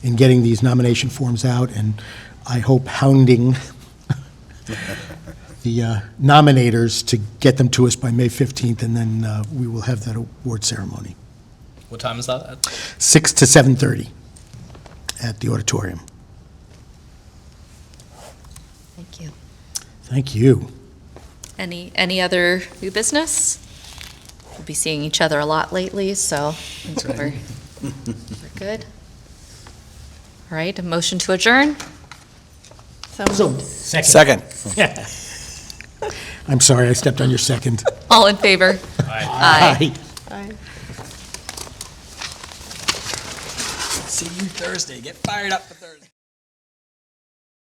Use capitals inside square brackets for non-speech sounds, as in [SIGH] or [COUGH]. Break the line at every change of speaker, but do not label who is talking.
in getting these nomination forms out, and I hope hounding [LAUGHS] the uh, nominators to get them to us by May 15th, and then uh, we will have that award ceremony.
What time is that? at?
6 to 7:30 at the auditorium.
Thank you.
Thank you.
Any, any other new business? We'll be seeing each other a lot lately, so I think we're, we're good. All right, a motion to adjourn?
Second.
I'm sorry, I stepped on your second.
All in favor? Aye.
Aye.
See you Thursday. Get fired up for Thursday.